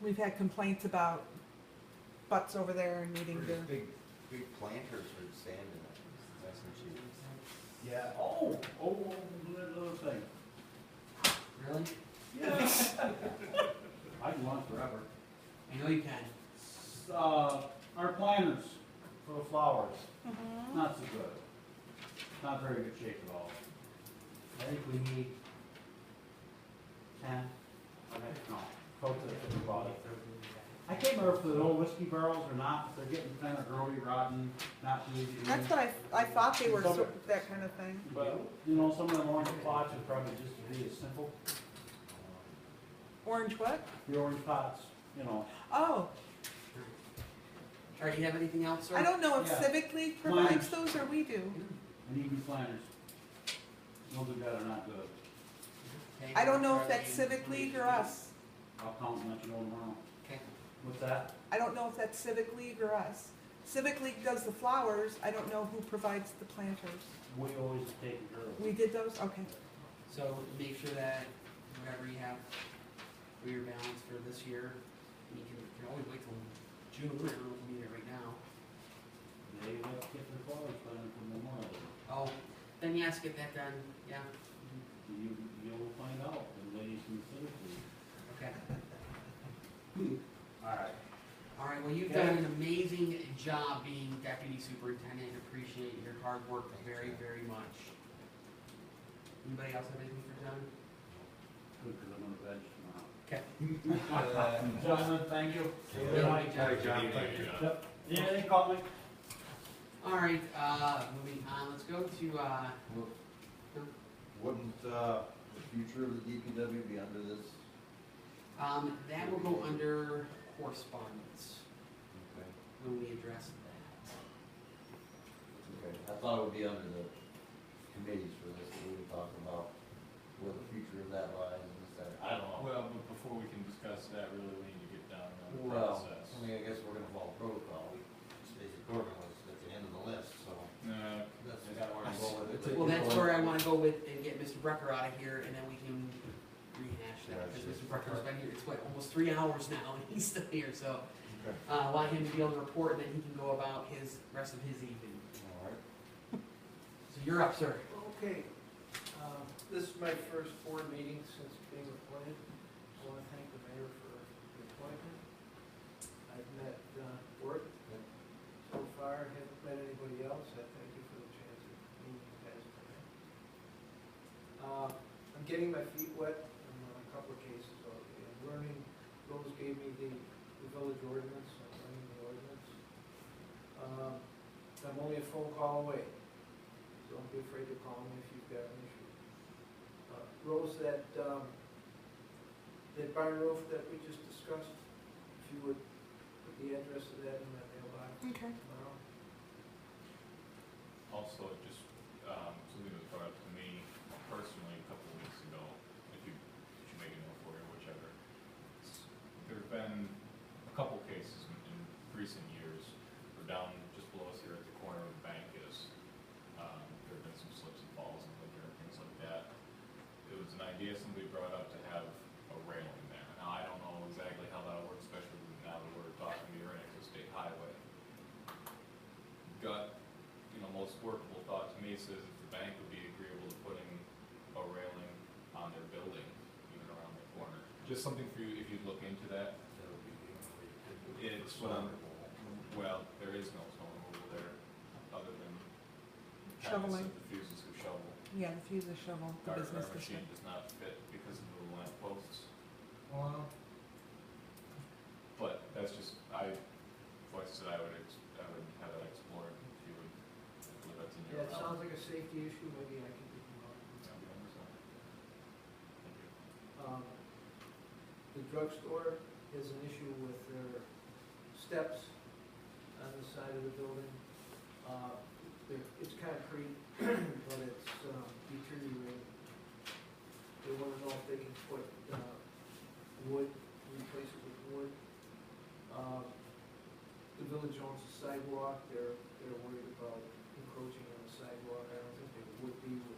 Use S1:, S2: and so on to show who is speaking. S1: we've had complaints about butts over there and needing
S2: There's
S1: to,
S2: big, big planters with sand in them, that's what she
S3: Yeah, oh, oh, that little thing.
S4: Really?
S3: Yes. I can run forever.
S4: I know you can.
S3: S- Uh, our planters for the flowers,
S1: Oh. Mm-hmm.
S3: not so good. Not very good shape at all.
S4: I think we need ten.
S3: I mean, no, coats it for the body. I can't remember if the old whiskey barrels or not, if they're getting kind of grody, rotten, not easy to use.
S1: that's what I, I thought they were, sort of that kind of thing.
S3: But, you know, some of them orange pots would probably just be as simple,
S2: did.
S1: Orange what?
S3: the orange pots, you know.
S1: Oh,
S4: All right, you have anything else, sir?
S1: I don't know if
S3: Yeah.
S1: Civic League provides those or we do.
S3: And even planters. Those are good or not good.
S4: Okay,
S1: I don't know if
S4: Charlie,
S1: that's Civic League or us.
S3: I'll count and let you know tomorrow.
S4: Okay.
S3: What's that?
S1: I don't know if that's Civic League or us. Civic League does the flowers, I don't know who provides the planters.
S3: We always take care of
S1: We
S3: it.
S1: did those, okay.
S4: So make sure that whatever you have for your balance for this year, you can, you can always wait till June, I don't know if you need it right now.
S3: They have to get their flowers planted from Memorial.
S4: Oh, then yes, get that done, yeah,
S3: You, you'll find out, the ladies in the civic league.
S4: okay.
S3: All right.
S4: All right, well, you've done an amazing job being deputy superintendent, appreciate your hard work very, very much. Anybody else have anything for John?
S3: Good, because I'm on the bench tomorrow.
S4: Okay.
S3: Gentlemen, thank you.
S2: Yeah.
S3: Good night.
S2: John, thank you.
S3: Yep. Yeah, they caught me.
S4: All right, uh, moving on, let's go to, uh,
S2: Wouldn't, uh, the future of the DPW be under this?
S4: um, that will go under correspondence
S2: Okay,
S4: when we address that.
S2: okay, I thought it would be under the committees for this, that we were talking about, where the future of that lies and this, that.
S3: I don't know.
S5: Well, but before we can discuss that, really, we need to get down on the
S2: Well,
S5: process.
S2: I mean, I guess we're gonna follow protocol, Stacy Corbin was at the end of the list, so
S5: No,
S2: that's kinda where I'm going with it.
S4: Well, that's where I wanna go with and get Mr. Brecker out of here, and then we can rehash that, because Mr. Brecker's been here, it's what, almost three hours now, and he's still here, so.
S2: Okay.
S4: Uh, want him to be able to report, and then he can go about his, rest of his evening.
S2: All right.
S4: So you're up, sir.
S6: Okay, um, this is my first board meeting since being appointed. I want to thank the mayor for the appointment. I've met uh, Bort so far, haven't met anybody else. I thank you for the chance of meeting you guys tonight. Uh, I'm getting my feet wet in a couple of cases already. I'm learning, Rose gave me the the village ordinance, I'm learning the ordinance. Um, I'm only a phone call away. Don't be afraid to call me if you've got an issue. Uh, Rose, that, um, that barn roof that we just discussed, if you would put the address of that in my mailbox
S1: Okay.
S6: tomorrow.
S5: also, just, um, something that was brought up to me personally a couple of weeks ago, if you, if you make a note for it, whichever. S- There've been a couple cases in, in recent years, or down just below us here at the corner of the bank is, um, there've been some slips and falls and like, different things like that. It was an idea somebody brought up to have a railing there. Now, I don't know exactly how that'll work, especially now that we're talking to your next state highway. Gut you know, most workable thought to me says if the bank would be agreeable to putting a railing on their building, even around the corner. Just something for you, if you look into that,
S2: That would be the only way you could do it.
S5: It's what I'm- well, there is no snow removal there, other than.
S1: Shoveling.
S5: The fuses who shovel.
S1: Yeah, the fuse is shovel, the
S5: Our,
S1: business
S5: our
S1: district.
S5: machine does not fit because of the lamp posts,
S6: Well,
S5: but that's just, I, voice that I would, ex- I would have that explored if you would, if that's in
S6: yeah,
S5: your
S6: it
S5: realm.
S6: sounds like a safety issue, maybe I can do tomorrow.
S5: Yeah, we understand. Thank you.
S6: Um, The drugstore has an issue with their steps on the side of the building. Uh, they're- It's concrete, but it's um, deteriorating. They want to know if they can put uh, wood, replace it with wood. Um, The village owns the sidewalk, they're, they're worried about encroaching on the sidewalk. I don't think they would be with uh,